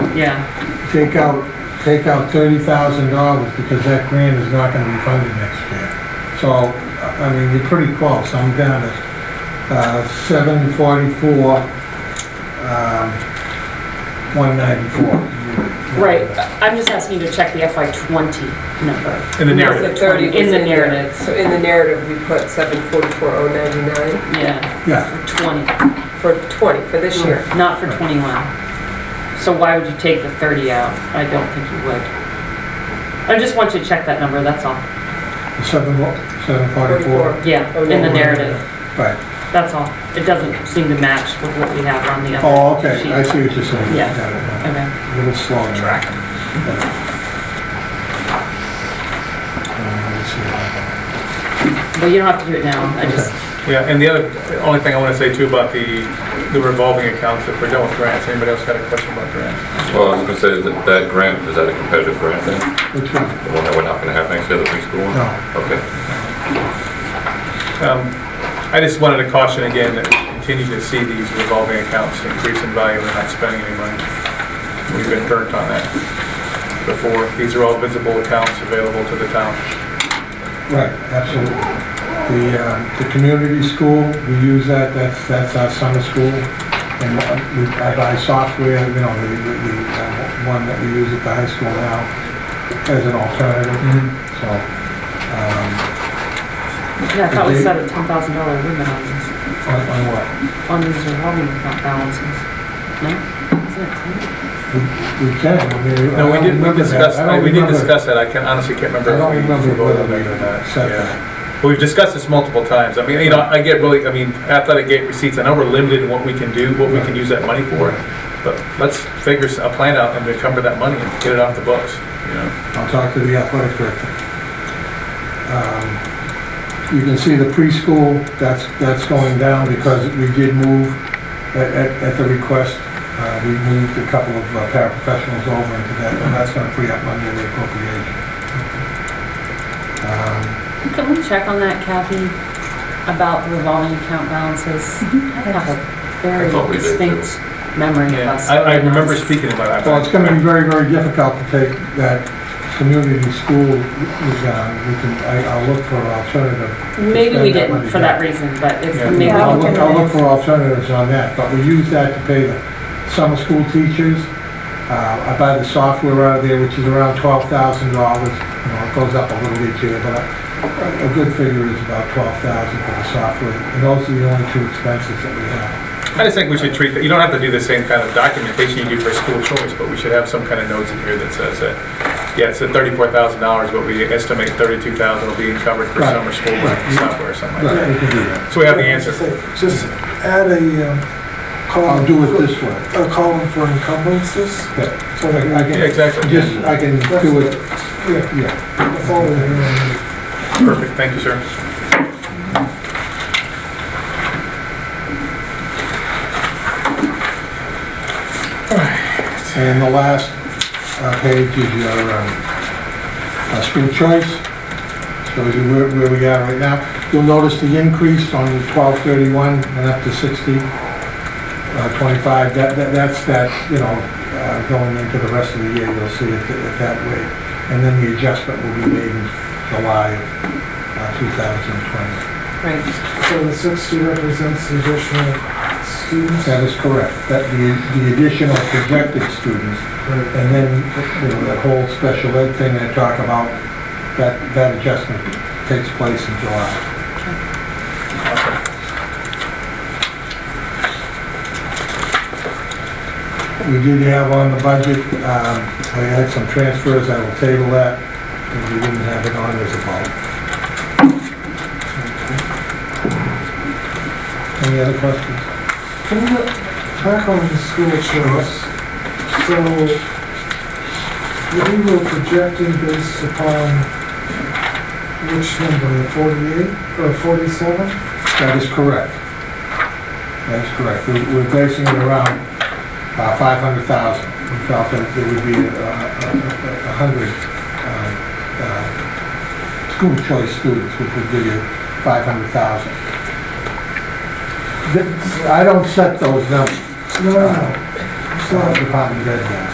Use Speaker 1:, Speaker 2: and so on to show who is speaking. Speaker 1: yeah,
Speaker 2: take out, take out thirty thousand dollars, because that grant is not gonna be funded next year. So, I I mean, you're pretty close, I'm down to, uh, seven forty-four, um, one ninety-four.
Speaker 3: Right, I'm just asking you to check the FY '20 number.
Speaker 4: in the
Speaker 3: No,
Speaker 4: narrative.
Speaker 3: the
Speaker 5: The 30 was
Speaker 3: In the
Speaker 5: there.
Speaker 3: narrative.
Speaker 5: So in the narrative, we put 744,099
Speaker 3: Yeah,
Speaker 2: Yeah,
Speaker 3: for 20,
Speaker 5: for 20, for
Speaker 3: Mm.
Speaker 5: this year.
Speaker 3: not for 21. So why would you take the 30 out? I don't think you would. I just want you to check that number, that's all.
Speaker 2: seven, seven forty-four,
Speaker 3: Yeah, in the narrative,
Speaker 2: right.
Speaker 3: that's all. It doesn't seem to match with what we have on the other.
Speaker 2: Oh, okay, I
Speaker 3: sheet.
Speaker 2: see what you're saying.
Speaker 3: Yeah.
Speaker 2: Got it now.
Speaker 3: Okay.
Speaker 2: A little slow in tracking. Uh,
Speaker 3: Well, you don't have to do it now, I just,
Speaker 4: Yeah, and the other, the only thing I want to say too about the, the revolving accounts, if we're done with grants, anybody else got a question about grants?
Speaker 6: Well, I was gonna say that that grant, is that a competitive grant then?
Speaker 2: Which one?
Speaker 6: The one that we're not gonna have next year, the preschool one?
Speaker 2: No.
Speaker 6: Okay.
Speaker 4: Um, I just wanted to caution again that we continue to see these revolving accounts increase in value and not spending any money. We've been burnt on that before. These are all visible accounts available to the town.
Speaker 2: Right, absolutely. The, um, the community school, we use that, that's, that's our summer school. And uh, we, I buy software, you know, the, the, the, uh, one that we use at the high school now as an alternative,
Speaker 4: Mm-hmm.
Speaker 2: so. um,
Speaker 3: yeah, I thought we set a $10,000 limit on this.
Speaker 2: On, on what?
Speaker 3: on these revolving account balances. No? Isn't it ten?
Speaker 2: We can, I mean. I
Speaker 4: No, we
Speaker 2: don't
Speaker 4: did, we
Speaker 2: remember that.
Speaker 4: discussed,
Speaker 2: I don't
Speaker 4: we did
Speaker 2: remember-
Speaker 4: discuss that. I can honestly can't remember.
Speaker 2: I don't
Speaker 4: if we
Speaker 2: remember
Speaker 4: voted
Speaker 2: whether
Speaker 4: on
Speaker 2: we
Speaker 4: it or not.
Speaker 2: said
Speaker 4: Yeah.
Speaker 2: that.
Speaker 4: But We've discussed this multiple times. I mean, you know, I get really, I mean, athletic gate receipts, I know we're limited in what we can do, what we can use that money for, but let's figure s- a plan out and encumber that money and get it off the books, you know?
Speaker 2: I'll talk to the athletic director. Um, You can see the preschool, that's, that's going down because we did move at, at- at the request. uh, We moved a couple of uh, paraprofessionals over into that, and that's gonna free up money in the appropriation. Um,
Speaker 3: Can we check on that, Kathy, about the revolving account balances?
Speaker 2: Mm-hmm.
Speaker 3: I have a very
Speaker 6: I thought we did, too.
Speaker 3: distinct memory of
Speaker 4: Yeah,
Speaker 3: us.
Speaker 4: I, I remember
Speaker 3: doing
Speaker 4: speaking about that.
Speaker 2: Well, it's gonna be very, very difficult to take that community school, we can, we can, I- I'll look for an alternative
Speaker 3: this. Maybe we
Speaker 2: Spend that
Speaker 3: didn't
Speaker 2: money,
Speaker 3: for that reason, but it's,
Speaker 4: Yeah.
Speaker 3: maybe we
Speaker 2: Yeah, I'll
Speaker 3: can
Speaker 2: look, I'll look for alternatives on that, but we use that to pay the summer school teachers. Uh, I buy the software out of there, which is around twelve thousand dollars, you know, it goes up a little each year, but a, a good figure is about twelve thousand for the software, and those are the only two expenses that we have.
Speaker 4: I just think we should treat, that- you don't have to do the same kind of documentation you do for school choice, but we should have some kind of notes in here that says that, yeah, it's at thirty-four thousand dollars, but we estimate thirty-two thousand will be encumbered for
Speaker 2: Right.
Speaker 4: summer school
Speaker 2: Right.
Speaker 4: software or something
Speaker 2: Right,
Speaker 4: like that.
Speaker 2: we can do that.
Speaker 4: So we have the answer.
Speaker 7: Just add a um, column.
Speaker 2: I'll do it
Speaker 7: for-
Speaker 2: this way.
Speaker 7: A column for encumbrances,
Speaker 2: Yeah.
Speaker 7: so that we
Speaker 2: I
Speaker 7: can,
Speaker 4: Yeah,
Speaker 2: can,
Speaker 4: exactly.
Speaker 2: just, I can do it,
Speaker 7: yeah,
Speaker 2: yeah.
Speaker 7: that's all we have.
Speaker 4: Perfect, thank you, sir.
Speaker 2: And the last uh, page is your um, uh, school choice, shows you where where we are right now. You'll notice the increase on 1231 and up to 60, uh, 25, that, that- that's that, you know, uh, going into the rest of the year, you'll see it th- it that way. And then the adjustment will be made in July of uh, 2020.
Speaker 3: Right,
Speaker 7: So the sixty represents the additional students.
Speaker 2: That is correct, that the the additional projected students
Speaker 7: Right.
Speaker 2: And then, you know, that whole special ed thing I talk about, that, that adjustment takes place in July. We did have on the budget, um, we had some transfers, I will table that, because we didn't have it on as a bulk. Any other questions?
Speaker 7: Can you back on the school choice? So we were projecting based upon which number, forty-eight or forty-seven?
Speaker 2: That is correct. That is correct. We- We're basing it around uh, 500,000. We felt that there would be uh, a a- a hundred um, uh, school choice students, which would give you 500,000. Th- I don't set those numbers,
Speaker 7: No, no, no.
Speaker 2: uh,
Speaker 7: So
Speaker 2: Department of Ed does.